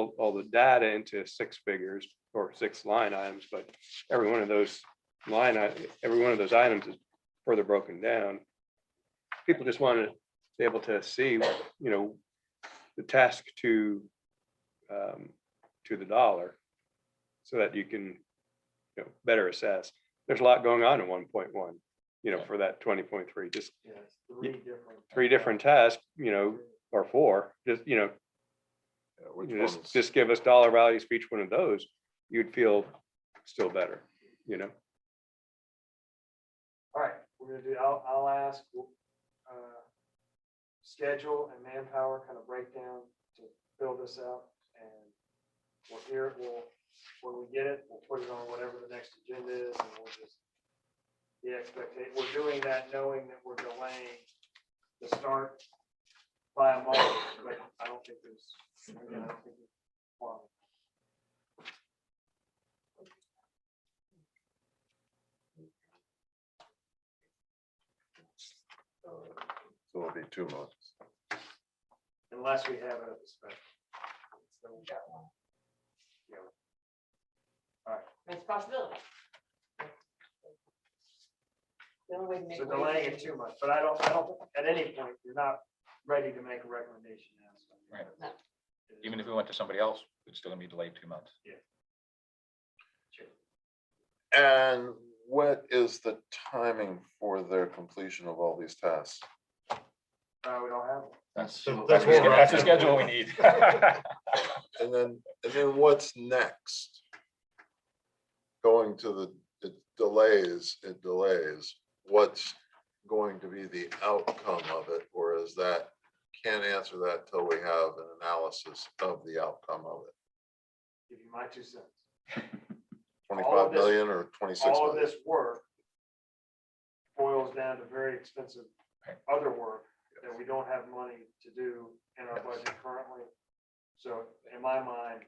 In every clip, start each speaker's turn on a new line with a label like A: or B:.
A: all- all the data into six figures or six line items, but every one of those line, i- every one of those items is further broken down. People just want to be able to see, you know, the task to um, to the dollar so that you can, you know, better assess. There's a lot going on in one point one, you know, for that twenty point three, just
B: Yeah, it's three different.
A: three different tasks, you know, or four, just, you know,
C: uh,
A: you know, just, just give us dollar values for each one of those, you'd feel still better, you know?
B: All right, we're gonna do, I'll, I'll ask, uh, schedule and manpower kind of breakdown to fill this out. And we'll hear it, we'll, when we get it, we'll put it on whatever the next agenda is and we'll just. The expectation, we're doing that knowing that we're delaying the start by a month, but I don't think there's. I don't think it's wrong.
C: So it'll be two months.
B: Unless we have it at the special. Then we got one.
D: It's a possibility. The only way to make.
B: So delaying it too much, but I don't, I don't, at any point, you're not ready to make a recommendation now. so.
E: Right.
D: No.
E: Even if we went to somebody else, it's still gonna be delayed two months.
B: Sure.
C: And what is the timing for their completion of all these tasks?
B: No, Uh, we don't have one.
E: That's,
F: So
E: that's
F: that's
E: the
F: what
E: sched-
F: we're
E: that's the
F: asking.
E: schedule we need.
C: And then, and then what's next? Going to the, it delays, it delays, what's going to be the outcome of it, or is that? Can't answer that till we have an analysis of the outcome of it,
B: Give you my two cents. All of
C: twenty-five
B: this-
C: million or twenty-six
B: All of
C: million?
B: this work boils down to very expensive
E: Right.
B: other work that we don't have money to do in our budget currently. So in my mind,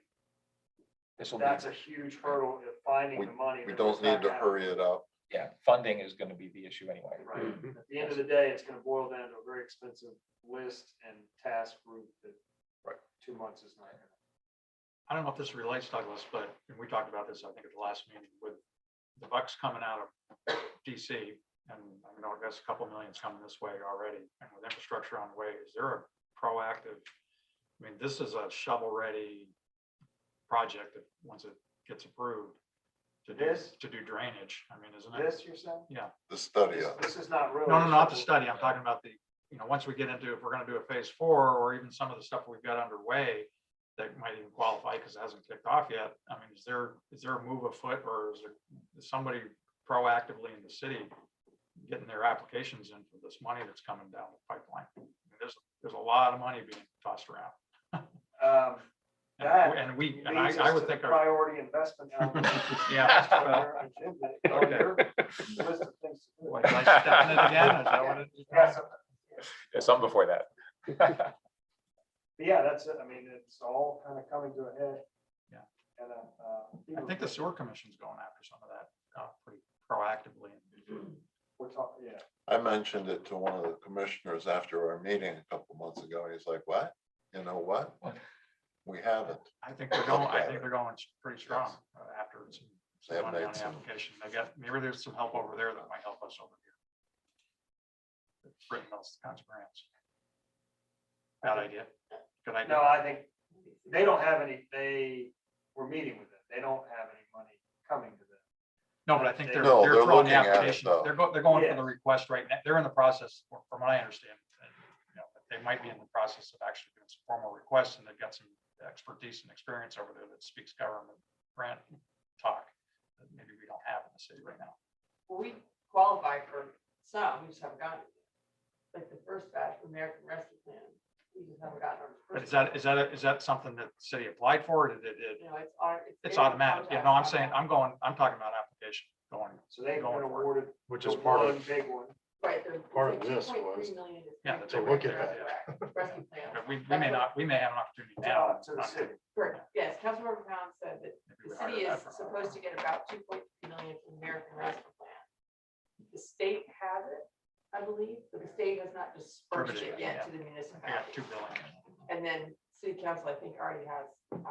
E: This will be,
B: that's a huge hurdle of finding the money.
C: We
B: that
C: don't
B: does not
C: need to
B: have.
C: hurry it up.
E: yeah, funding is gonna be the issue anyway.
B: Right. At the end of the day, it's gonna boil down to a very expensive list and task group that
C: Right.
B: two months is not. gonna-
F: I don't know if this relates, Douglas, but and we talked about this, I think, at the last meeting with the bucks coming out of DC. And I know that's a couple millions coming this way already, and with infrastructure on the way, is there a proactive? I mean, this is a shovel-ready project that, once it gets approved, to do,
B: This?
F: to do drainage, I mean, isn't it?
B: This, you're saying?
C: The study,
B: This
C: of it.
B: this is not really.
F: No, no, not the
B: something-
F: study, I'm talking about the, you know, once we get into, if we're gonna do a phase four, or even some of the stuff we've got underway that might even qualify, because it hasn't kicked off yet, I mean, is there, is there a move afoot, or is there is somebody proactively in the city getting their applications in for this money that's coming down the pipeline? I mean, There's, there's a lot of money being tossed around.
B: Um, That
F: And we, and I,
B: leads
F: I
B: us
F: would
B: to the
F: think, our-
B: priority investment. element
F: yeah.
B: on our agenda, on your list of things to do.
F: What, did I step in it again? Is that what it is?
B: Yes, but
E: Yeah, Some before that.
B: Yeah, that's it. I mean, it's all kind of coming to a head.
F: Yeah.
B: And, uh, uh,
F: I think the sewer commission's going after some of that, uh, pretty proactively.
B: We're talking, yeah.
C: I mentioned it to one of the commissioners after our meeting a couple months ago, and he's like, what? You know what?
E: What?
C: We haven't.
F: I think they're going, I
C: Okay.
F: think they're going s- pretty strong uh, after some
C: They have
F: some money
C: made
F: on the
C: some-
F: application. They got, maybe there's some help over there that might help us over here. It's Written those kinds of grants. Bad idea. Good
B: No,
F: idea.
B: I think they don't have any, they were meeting with it. They don't have any money coming to them.
F: No, but I think they're,
C: No,
F: they're
C: they're
F: throwing
C: looking
F: the
C: at it,
F: application.
C: though.
F: They're go, they're going for the
B: Yes.
F: request right now. They're in the process, fr- from what I understand. uh, you know, that They might be in the process of actually doing some formal requests and they've got some expertise and experience over there that speaks government grant talk. That maybe we don't have in the city right now.
D: Well, We qualify for some, we just haven't gotten it. Like the first batch of American Rescue Plan, we just haven't gotten our
F: But is
D: first.
F: that, is that, a- is that something that the city applied for? or Did it,
D: You know, it's auto-
F: it's
D: in our
F: automatic? Yeah,
D: contract.
F: no, I'm saying, I'm going, I'm talking about application going,
B: So they've been
F: Going for it.
B: awarded
F: which
B: the
F: is part of,
B: one Big one.
D: Right, there's.
F: part of this
D: was.
F: yeah. that's
D: Rescue
F: over
D: plan.
F: there, yeah. But We, we may
D: That's what-
F: not, we may have an opportunity now.
B: down uh, to the city.
D: Correct, yes, Councilmember Pound said that the city is supposed to get about two point three million from the American Rescue Plan. The state has it, I believe, but the state has not dispersed
F: Distributed,
D: it yet to the municipality.
F: two billion.
D: And then city council, I think, already has